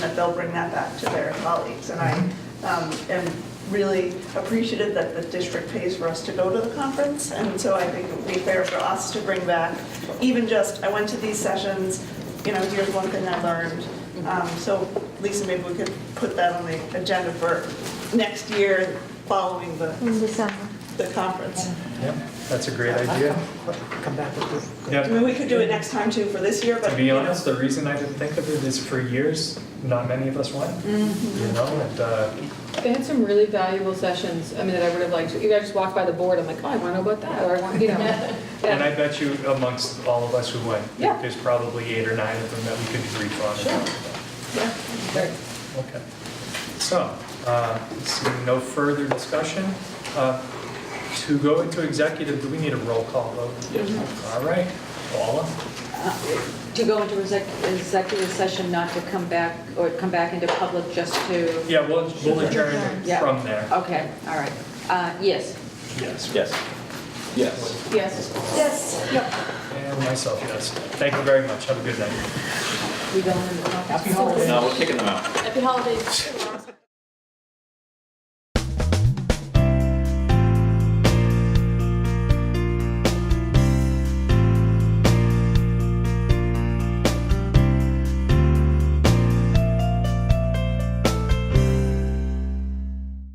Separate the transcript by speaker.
Speaker 1: they'll bring that back to their colleagues. And I um, am really appreciative that the district pays for us to go to the conference, and so I think it would be fair for us to bring back, even just, I went to these sessions, you know, here's one thing I learned. Um, So Lisa, maybe we could put that on the agenda for next year, following the,
Speaker 2: in December.
Speaker 1: the conference.
Speaker 3: Yep, that's a great idea.
Speaker 4: Come back with this.
Speaker 1: I mean, we could do it next time too for this year, but.
Speaker 3: To be
Speaker 1: you know,
Speaker 3: honest, the reason I didn't think of it is for years, not many of us went, you know, and, uh,
Speaker 5: They had some really valuable sessions, I mean, that I would have liked, to. even I just walked by the board, I'm like, oh, I want to know about that, or I want, you know.
Speaker 3: and I
Speaker 5: Yeah.
Speaker 3: bet you amongst all of us who went,
Speaker 5: Yeah.
Speaker 3: there's probably eight or nine of them that we could brief on.
Speaker 1: yeah.
Speaker 3: Okay, okay. So, uh, seeing no further discussion, uh, to go into executive, do we need a roll call vote? All right, Paula?
Speaker 6: To go into exec- executive session, not to come back, or come back into public just to,
Speaker 3: Yeah, we'll we'll adjourn
Speaker 6: Yeah.
Speaker 3: from there.
Speaker 6: okay, all right. Uh, Yes.
Speaker 3: Yes.
Speaker 7: Yes. Yes.
Speaker 5: Yes.
Speaker 2: Yes.
Speaker 3: And myself, yes. Thank you very much. Have a good night.
Speaker 6: We go into the conference.
Speaker 4: Happy holidays.
Speaker 7: No, we're kicking them out.
Speaker 8: Happy holidays.